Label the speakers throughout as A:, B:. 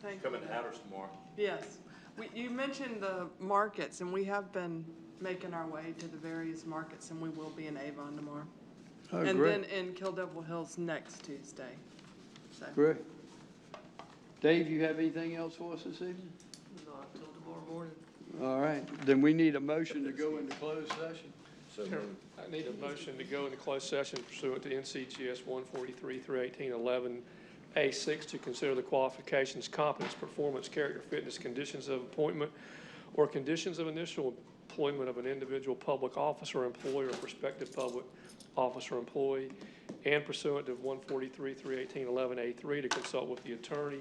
A: thank you.
B: Coming to Hatters tomorrow.
A: Yes. We- You mentioned the markets, and we have been making our way to the various markets, and we will be in Avon tomorrow.
C: Oh,
A: And
C: great.
A: then in Kill Devil Hills next Tuesday. So,
C: Great. Dave, you have anything else for us this evening?
D: Not till tomorrow morning.
C: All right, then we need a motion to go into closed session.
D: Chairman, I need a motion to go into closed session pursuant to NCGS 143 through 1811 A6 to consider the qualifications, competence, performance, character, fitness, conditions of appointment, or conditions of initial employment of an individual public officer, employee, or prospective public officer, employee, and pursuant to 143 through 1811 A3 to consult with the attorney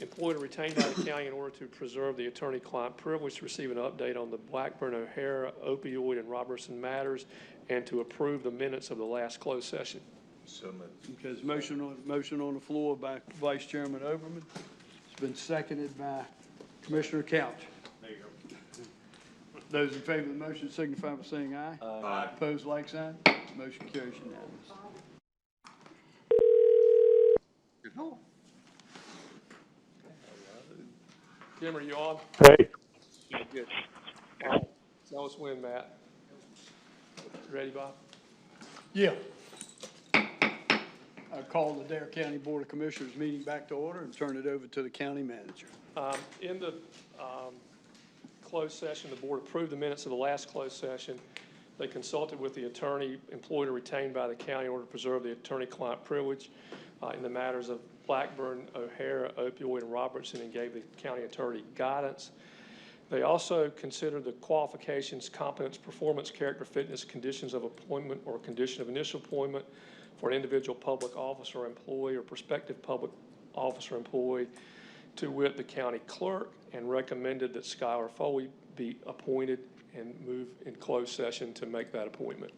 D: employed or retained by the county in order to preserve the attorney-client privilege, to receive an update on the Blackburn O'Hara opioid and Robertson matters, and to approve the minutes of the last closed session.
B: So moved.
C: Because motion on, motion on the floor by Vice Chairman Overman. It's been seconded by Commissioner Couch.
B: There you
C: Those in favor of the motion signify by saying aye.
B: go. Aye.
C: Opposed, like sign. Motion carries unanimous.
D: Jim, are you on?
E: Hey,
D: Good. Alright, Tell us when, Matt. Ready, Bob?
C: Yeah. I call the Dare County Board of Commissioners meeting back to order and turn it over to the county manager.
D: Um, In the um, closed session, the board approved the minutes of the last closed session. They consulted with the attorney employed or retained by the county in order to preserve the attorney-client privilege uh, in the matters of Blackburn, O'Hara, opioid, and Robertson, and gave the county attorney guidance. They also considered the qualifications, competence, performance, character, fitness, conditions of appointment or condition of initial appointment for an individual public officer, employee, or prospective public officer, employee, to wit, the county clerk, and recommended that Skylar Foley be appointed and move in closed session to make that appointment.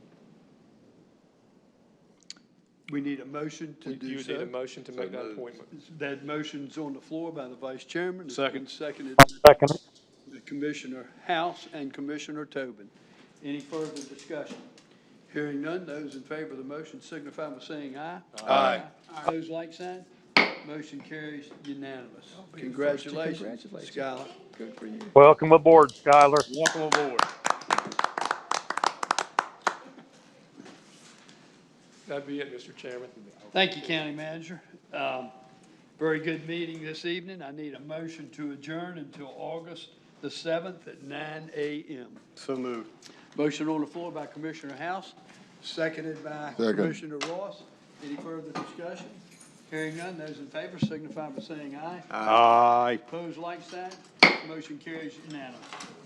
C: We need a motion to
D: You
C: do
D: you need a
C: so.
D: motion to make
B: So
D: that
B: moved.
D: appointment.
C: That motion's on the floor by the vice chairman. Second. Seconded
E: second it.
C: by Commissioner House and Commissioner Tobin. Any further discussion? Hearing none, those in favor of the motion signify by saying aye.
B: Aye.
C: Opposed, like sign. Motion carries unanimous. Congratulations, Skylar.
E: Welcome aboard, Skylar.
C: Welcome aboard.
D: That'd be it, Mr. Chairman.
C: Thank you, County Manager. Um, Very good meeting this evening. I need a motion to adjourn until August the 7th at 9 a.m. So moved. Motion on the floor by Commissioner House, seconded by Commissioner Ross. Any further discussion? Hearing none, those in favor signify by saying aye.
E: Aye.
C: Opposed, like sign. Motion carries unanimous.